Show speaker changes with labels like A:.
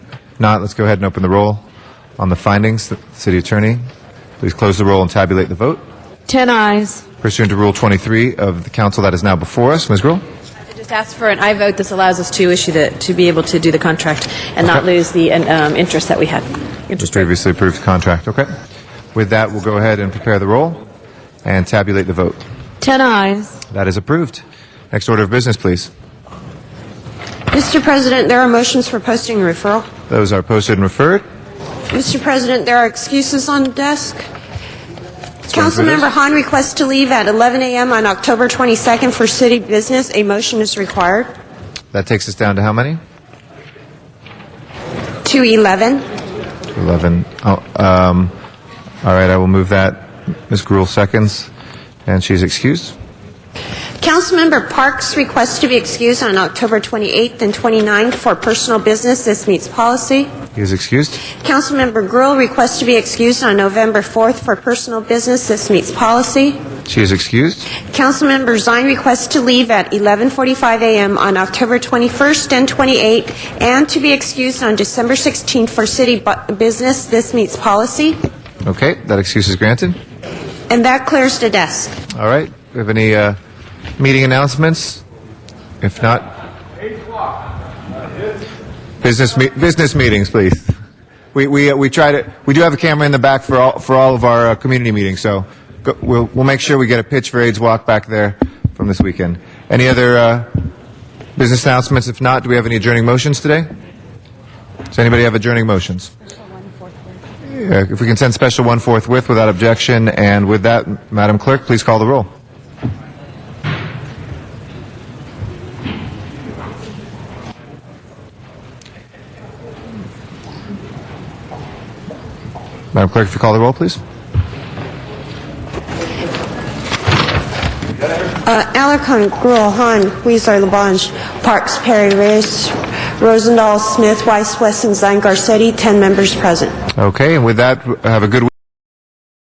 A: not, let's go ahead and open the roll on the findings. The City Attorney, please close the roll and tabulate the vote.
B: 10 eyes.
A: Pursuant to Rule 23 of the council that is now before us, Ms. Gruhl?
B: I just asked for an I vote. This allows us to issue the, to be able to do the contract and not lose the um, interest that we had.
A: The previously approved contract, okay. With that, we'll go ahead and prepare the roll and tabulate the vote.
B: 10 eyes.
A: That is approved. Next order of business, please.
C: Mr. President, there are motions for posting and referral.
A: Those are posted and referred.
C: Mr. President, there are excuses on the desk.
A: run through
C: Councilmember
A: this.
C: Hahn requests to leave at 11 a.m. on October 22nd for city business. A motion is required.
A: That takes us down to how many?
C: 211.
A: 11. Oh, um, all right, I will move that. Ms. Gruhl seconds, and she's excused.
C: Councilmember Parks requests to be excused on October 28th and 29th for personal business. This meets policy.
A: He is excused.
C: Councilmember Grill requests to be excused on November 4th for personal business. This meets policy.
A: She is excused.
C: Councilmember Zine requests to leave at 11:45 a.m. on October 21st and 28th, and to be excused on December 16th for city bu- business. This meets policy.
A: Okay, that excuse is granted.
C: And that clears the desk.
A: All right, we have any uh, meeting announcements? If not, business me- business meetings, please. We we uh, we try to we do have a camera in the back for all for all of our uh, community meetings, so go, we'll we'll make sure we get a pitch for AIDS walk back there from this weekend. Any other uh, business announcements? If not, do we have any adjourning motions today? Does anybody have adjourning motions? Uh, If we can send special one forthwith without objection, and with that, Madam Clerk, please call the roll. Madam Clerk, if you call the roll, please.
C: Uh, Alarcon, Gruel, Hahn, Weezer, Labange, Parks, Perry, Reyes, Rosendahl, Smith, Weiss, Wesson, Zine, Garcetti, 10 members present.
A: Okay, and with that, have a good